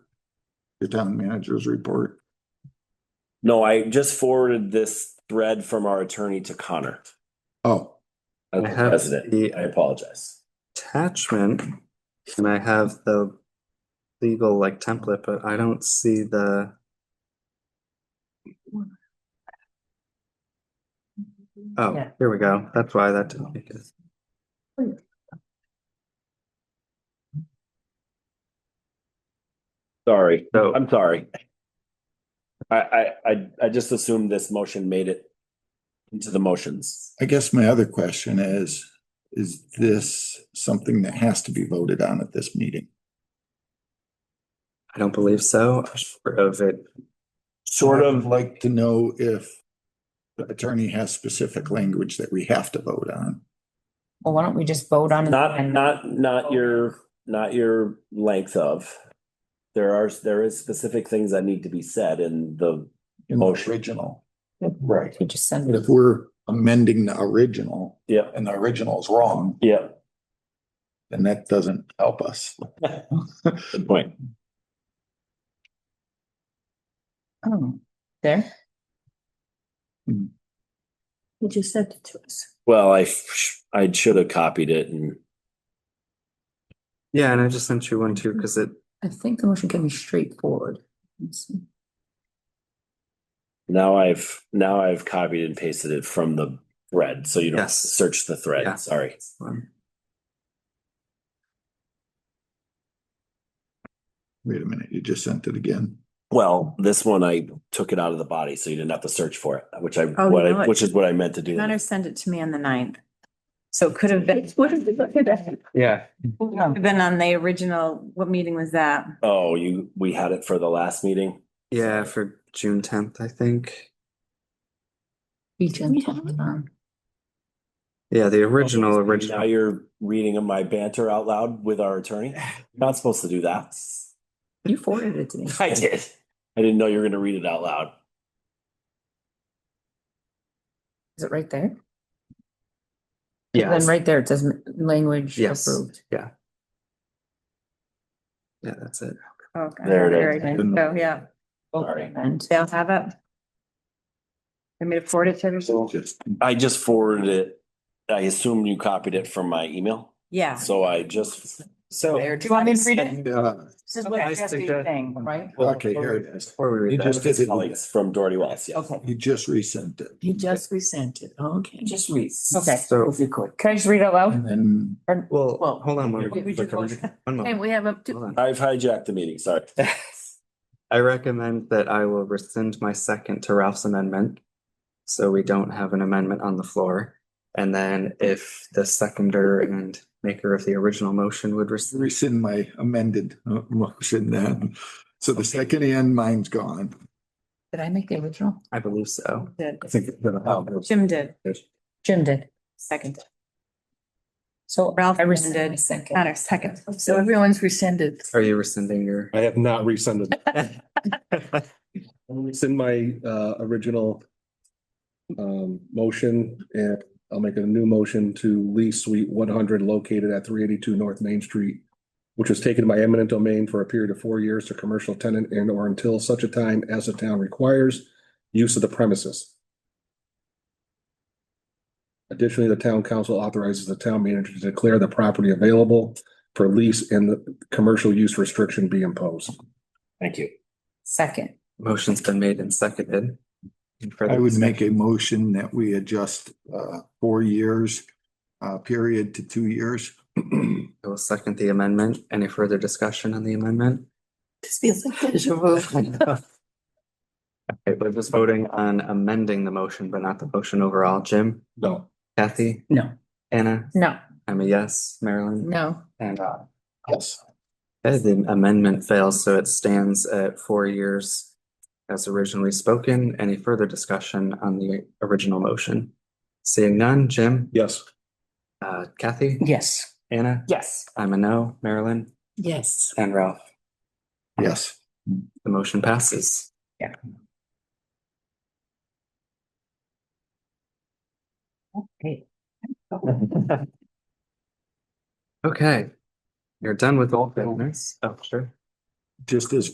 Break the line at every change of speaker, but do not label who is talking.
the town manager's report.
No, I just forwarded this thread from our attorney to Connor.
Oh,
as
I
the
have
president.
the-
I apologize.
attachment and I have the legal like template, but I don't see the. Oh,
Yeah.
here we go. That's why that didn't make it.
Sorry,
So
I'm sorry. I, I, I, I just assumed this motion made it into the motions.
I guess my other question is, is this something that has to be voted on at this meeting?
I don't believe so. Short of it.
Sort
I'd
of like,
Like to know if the attorney has specific language that we have to vote on.
Well, why don't we just vote on? it
not,
and-
not, not your, not your length of. There are, there is specific things that need to be said in the,
in the
Motion.
Original. Right.
We just send
But
it.
if we're amending the original
yeah,
and the original's wrong,
yeah,
then that doesn't help us.
good point.
Oh, There.
Hmm. You just sent it to us.
Well, I, I should have copied it and
Yeah, and I just sent you one too, because it,
I think the motion can be straightforward. Let's see.
Now I've now I've copied and pasted it from the thread, so you don't
Yes.
search the thread.
Yeah.
Sorry.
um,
Wait a minute, you just sent it again.
Well, this one I took it out of the body, so you didn't have to search for it, which I
Oh,
what
you
I,
know what?
which is what I meant to do.
Connor sent it to me on the ninth. So it could have been,
yeah,
been on the original, what meeting was that?
Oh, you we had it for the last meeting.
yeah, for June tenth, I think.
Be gentle. um,
Yeah, the original,
Now
original.
you're reading my banter out loud with our attorney. Not supposed to do that.
You forwarded it to me.
I did. I didn't know you were going to read it out loud.
Is it right there? Then
Yes,
right there, it says m- language
Yes.
approved.
yeah, that's it.
Okay.
There it
There
is.
it is. So, yeah,
Sorry.
And
they'll have it. I made a forward it to everyone.
Just
I just forwarded it. I assume you copied it from my email.
Yeah.
So I just
So.
There,
Do you want me to read it?
Yeah,
This is
Okay,
what
I
Jesse's
suggest-
saying, right?
okay, here it is.
Before we
You
read that.
just did it.
colleagues from Doherty Wells. Yes.
Okay.
You just resent it.
He just resent it. Okay.
Just read. Okay.
So,
Can I just read it out loud?
And then
well,
Well,
hold on one
we- we should
moment.
vote.
One moment.
And we have a,
Hold on.
I've hijacked the meeting, sorry.
I recommend that I will rescind my second to Ralph's amendment. So we don't have an amendment on the floor. And then if the seconder and maker of the original motion would rescind,
rescind my amended uh, motion then. So the second and mine's gone.
did I make the original?
I believe so.
I think it's gonna help.
Jim did,
Jim did.
second.
So
Ralph
I rescinded my
rescinded.
second.
Connor, second. So everyone's rescinded.
Are you rescinding your?
I have not rescinded. It's in my uh original um motion and I'll make a new motion to lease suite one hundred located at three eighty-two North Main Street, which was taken by eminent domain for a period of four years to commercial tenant and or until such a time as the town requires use of the premises. Additionally, the town council authorizes the town manager to declare the property available for lease and the commercial use restriction be imposed.
Thank you.
Second.
Motion's been made and seconded. Any further
I would
discussion?
make a motion that we adjust uh four years uh period to two years.
I will second the amendment. Any further discussion on the amendment?
This feels like deja vu.
Okay, we're just voting on amending the motion, but not the motion overall. Jim,
No.
Kathy,
No.
Anna,
No,
I'm a yes. Marilyn?
no.
And uh,
Yes.
okay, the amendment fails, so it stands at four years as originally spoken. Any further discussion on the original motion? Seeing none, Jim,
Yes.
uh, Kathy,
Yes.
Anna,
Yes.
I'm a no, Marilyn,
Yes.
and Ralph.
Yes.
The motion passes.
Okay.
Okay. You're done with all business. Oh, sure.
Just as